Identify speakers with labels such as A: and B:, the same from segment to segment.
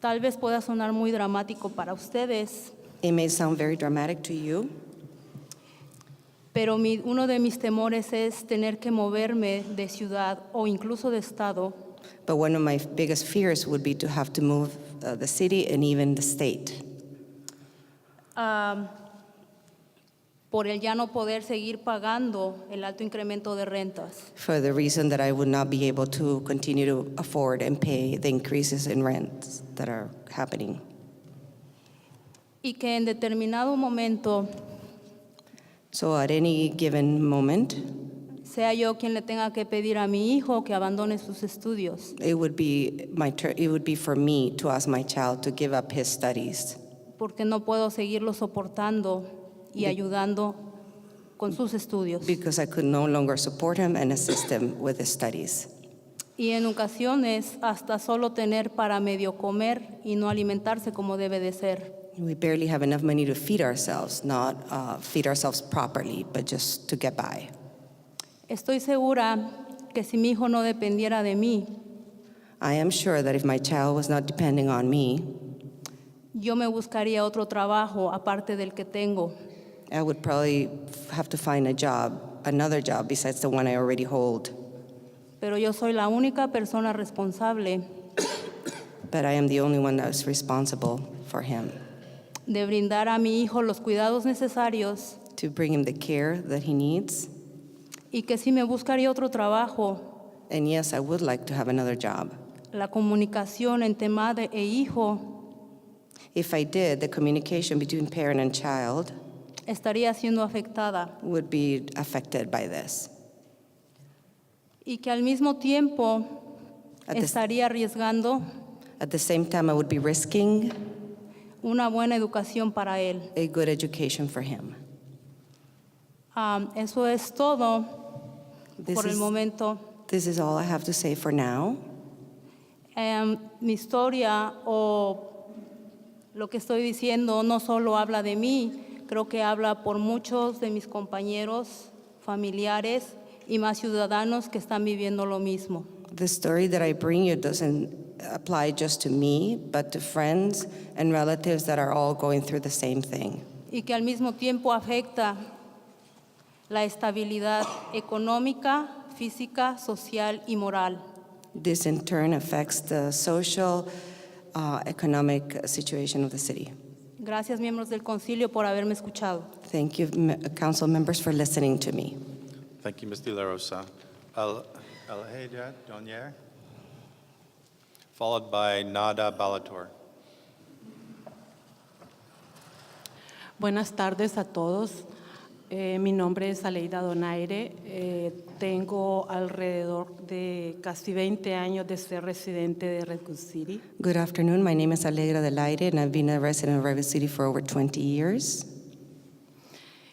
A: Tal vez pueda sonar muy dramático para ustedes,
B: It may sound very dramatic to you,
A: pero mi- uno de mis temores es tener que moverme de ciudad o incluso de estado
B: but one of my biggest fears would be to have to move uh, the city and even the state
A: am, por el ya no poder seguir pagando el alto incremento de rentas.
B: for the reason that I would not be able to continue to afford and pay the increases in rents that are happening.
A: Y que en determinado momento
B: So at any given moment,
A: sea yo quien le tenga que pedir a mi hijo que abandone sus estudios.
B: it would be my tur it would be for me to ask my child to give up his studies
A: porque no puedo seguirlo soportando y ayudando con sus estudios.
B: because I could no longer support him and assist him with his studies.
A: Y en ocasiones hasta solo tener para medio comer y no alimentarse como debe de ser.
B: We barely have enough money to feed ourselves, not uh, feed ourselves properly, but just to get by.
A: Estoy segura que si mi hijo no dependiera de mí,
B: I am sure that if my child was not depending on me,
A: yo me buscaría otro trabajo aparte del que tengo.
B: I would probably have to find a job, another job besides the one I already hold.
A: Pero yo soy la única persona responsable
B: But I am the only one that is responsible for him
A: de brindar a mi hijo los cuidados necesarios
B: to bring him the care that he needs.
A: y que si me buscaría otro trabajo,
B: And yes, I would like to have another job.
A: la comunicación entre madre e hijo
B: If I did, the communication between parent and child
A: estaría siendo afectada
B: would be affected by this.
A: y que al mismo tiempo
B: At the-
A: estaría arriesgando
B: At the same time, I would be risking
A: una buena educación para él.
B: a good education for him.
A: Am, Um, eso es todo
B: This
A: por el
B: is,
A: momento.
B: this is all I have to say for now.
A: Em, mi historia o lo que estoy diciendo no solo habla de mí, creo que habla por muchos de mis compañeros, familiares y más ciudadanos que están viviendo lo mismo.
B: The story that I bring you doesn't apply just to me, but to friends and relatives that are all going through the same thing.
A: y que al mismo tiempo afecta la estabilidad económica, física, social y moral.
B: This in turn affects the social, uh, economic situation of the city.
A: Gracias, miembros del Concilio, por haberme escuchado.
B: Thank you, m- council members, for listening to me.
C: Thank you, Ms. De La Rosa. Al- Alheja Donier, followed by Nada Balator.
D: Buenas tardes a todos. Eh, mi nombre es Aleida Donaire. Eh, tengo alrededor de casi 20 años de ser residente de Red Hook City.
B: Good afternoon. My name is Alegra del Aire, and I've been a resident of River City for over 20 years.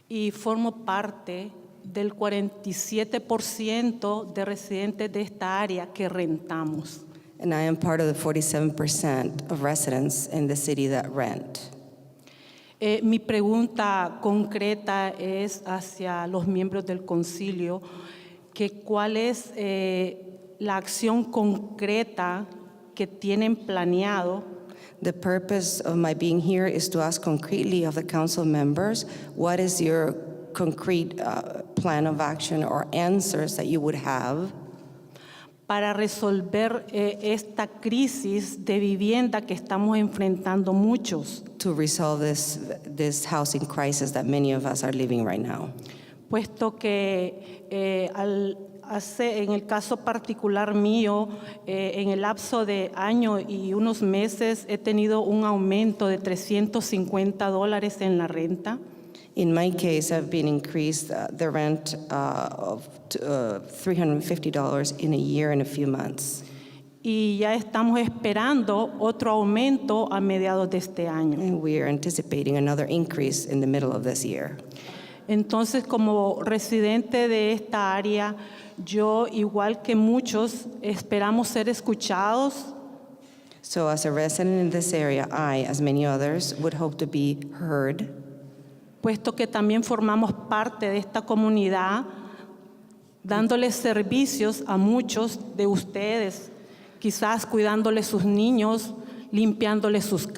D: y formo parte del 47% de residentes de esta área que rentamos.
B: And I am part of the 47% of residents in the city that rent.
D: Eh, mi pregunta concreta es hacia los miembros del concilio, que cuál es eh, la acción concreta que tienen planeado
B: The purpose of my being here is to ask concretely of the council members, what is your concrete uh, plan of action or answers that you would have
D: para resolver eh, esta crisis de vivienda que estamos enfrentando muchos.
B: to resolve this, this housing crisis that many of us are living right now?
D: puesto que eh, al- hace- en el caso particular mío, eh, en el lapso de año y unos meses he tenido un aumento de 350 dólares en la renta.
B: In my case, I've been increased uh, the rent uh, of uh, $350 in a year and a few months.
D: Y ya estamos esperando otro aumento a mediados de este año.
B: And we are anticipating another increase in the middle of this year.
D: Entonces, como residente de esta área, yo, igual que muchos, esperamos ser escuchados,
B: So as a resident in this area, I, as many others, would hope to be heard
D: puesto que también formamos parte de esta comunidad, dándoles servicios a muchos de ustedes, quizás cuidándoles sus niños, limpiándole sus